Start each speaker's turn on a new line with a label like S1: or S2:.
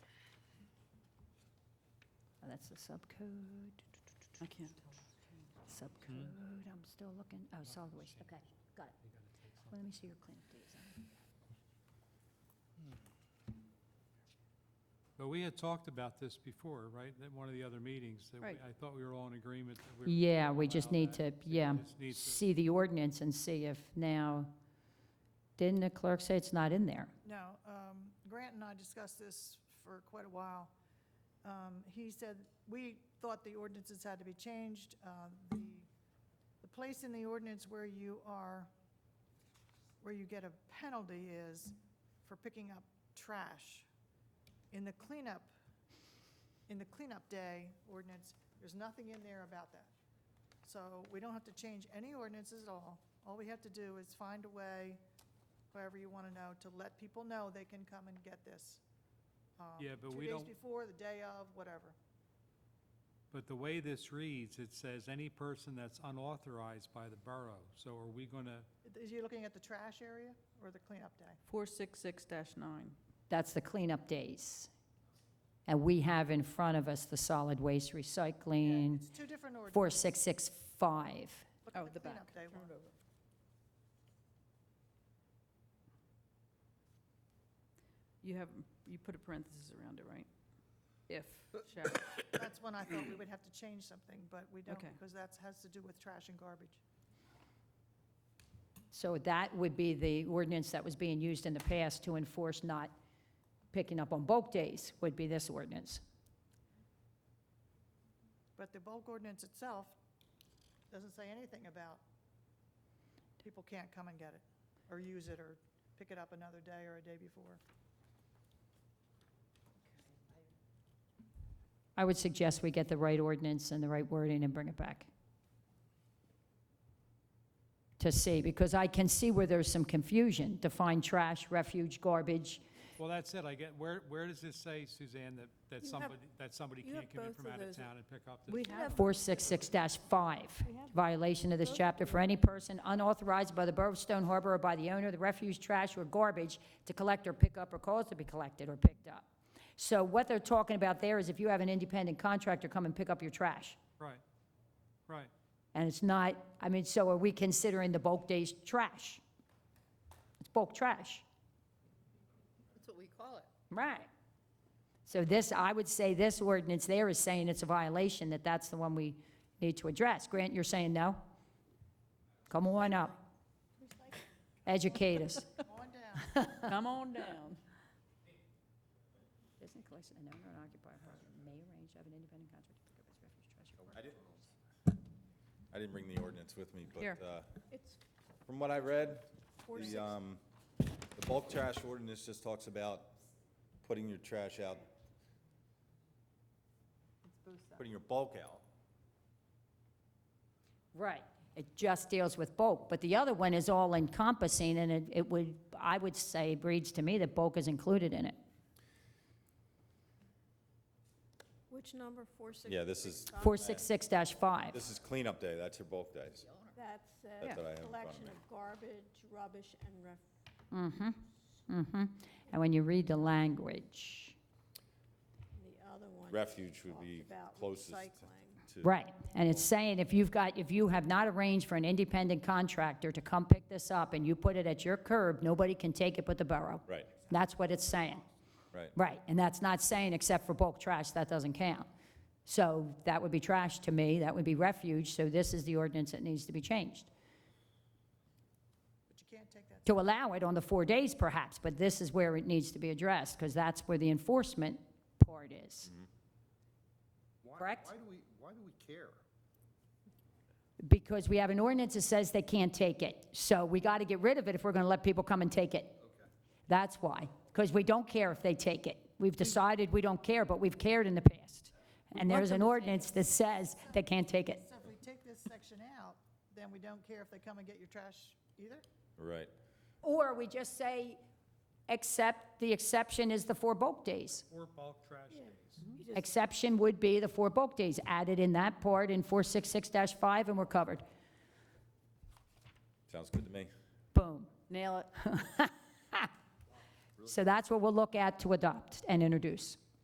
S1: Oh, That's the subcode.
S2: I can't
S3: Hmm.
S1: Subcode, I'm still looking, oh, solid waste, okay, got it. Well, Let me see your cleanup days.
S3: But we had talked about this before, right, at one of the other meetings, that we-
S2: Right.
S3: I thought we were all in agreement that we were.
S1: Yeah,
S3: gonna
S1: we just
S3: allow
S1: need
S3: that.
S1: to, yeah,
S3: just need to-
S1: see the ordinance and see if now, didn't the clerk say it's not in there?
S4: No, um, Grant and I discussed this for quite a while. Um, He said, we thought the ordinances had to be changed. Uh, The the place in the ordinance where you are, where you get a penalty is for picking up trash. In the cleanup, in the cleanup day ordinance, there's nothing in there about that. So we don't have to change any ordinances at all. All we have to do is find a way however you want to know, to let people know they can come and get this. um,
S3: Yeah, but we don't-
S4: Two days before, the day of, whatever.
S3: But the way this reads, it says any person that's unauthorized by the borough. So are we gonna,
S4: Is you looking at the trash area or the cleanup day?
S2: 466-9.
S1: That's the cleanup days. And we have in front of us the solid waste recycling,
S4: It's two different ordinances.
S1: 4665.
S4: Look at
S2: Oh, the back.
S4: cleanup day one.
S2: You have, you put a parenthesis around it, right? If, shall.
S4: That's when I thought we would have to change something, but we don't,
S2: Okay.
S4: because that has to do with trash and garbage.
S1: So that would be the ordinance that was being used in the past to enforce not picking up on bulk days, would be this ordinance.
S4: But the bulk ordinance itself doesn't say anything about people can't come and get it, or use it, or pick it up another day or a day before.
S1: I would suggest we get the right ordinance and the right wording and bring it back. To see, because I can see where there's some confusion, define trash, refuge, garbage.
S3: well, that's it, I get, where, where does this say, Suzanne, that, that
S5: You have-
S3: somebody, that somebody
S5: you have
S3: can't come in
S5: both
S3: from
S5: of
S3: out of
S5: those.
S3: town and pick up this?
S2: We
S5: You
S2: have,
S5: have-
S1: Four six six five,
S5: We have-
S1: violation of this chapter for any person unauthorized by the Borough of Stone Harbor or by the owner of the refuse, trash, or garbage to collect or pick up or cause to be collected or picked up. So what they're talking about there is if you have an independent contractor come and pick up your trash.
S3: Right, right.
S1: And it's not, I mean, so are we considering the bulk days trash? It's bulk trash.
S6: That's what we call it.
S1: Right. So this, I would say this ordinance there is saying it's a violation, that that's the one we need to address. Grant, you're saying no? Come on up. Educate us.
S4: On down.
S2: come on down.
S1: Business collection, an owner and occupier apartment may arrange to have an independent contractor pick up his refuse, trash, or
S7: I didn't, I didn't bring the ordinance with me,
S2: Here.
S7: but, uh,
S5: It's
S7: from what I read, the, um, the bulk trash ordinance just talks about putting your trash out, putting your bulk out.
S1: Right. It just deals with bulk, but the other one is all encompassing, and it, it would, I would say, reads to me that bulk is included in it.
S5: which number, four six?
S7: Yeah, this is,
S1: Four six six five.
S7: this is cleanup day, that's your bulk days.
S5: That's
S7: That's
S5: uh
S7: what I have in front of
S5: collection
S7: me.
S5: of garbage, rubbish, and ref,
S1: Mm-hmm. And when you read the language,
S5: the other one.
S7: Refuge would be
S5: talked about
S7: closest to-
S5: Recycling.
S7: to-
S1: right, and it's saying if you've got, if you have not arranged for an independent contractor to come pick this up and you put it at your curb, nobody can take it but the borough.
S7: Right,
S1: That's what it's saying,
S7: right.
S1: right, and that's not saying except for bulk trash, that doesn't count. So that would be trash to me, that would be refuge, so this is the ordinance that needs to be changed.
S4: But you can't take that
S1: to allow it on the four days perhaps, but this is where it needs to be addressed, because that's where the enforcement part is.
S8: Why-
S1: Correct?
S8: Why do we, why do we care?
S1: Because we have an ordinance that says they can't take it. So we got to get rid of it if we're going to let people come and take it. That's why, because we don't care if they take it. We've decided we don't care, but we've cared in the past. And there's an ordinance that says they can't take it.
S4: So if we take this section out, then we don't care if they come and get your trash either?
S7: Right.
S1: Or we just say, except, the exception is the four bulk days.
S3: Or bulk trash days.
S1: Exception would be the four bulk days added in that part in 466-5, and we're covered.
S7: Sounds good to me.
S1: Boom.
S2: Nail it.
S1: So that's what we'll look at to adopt and introduce.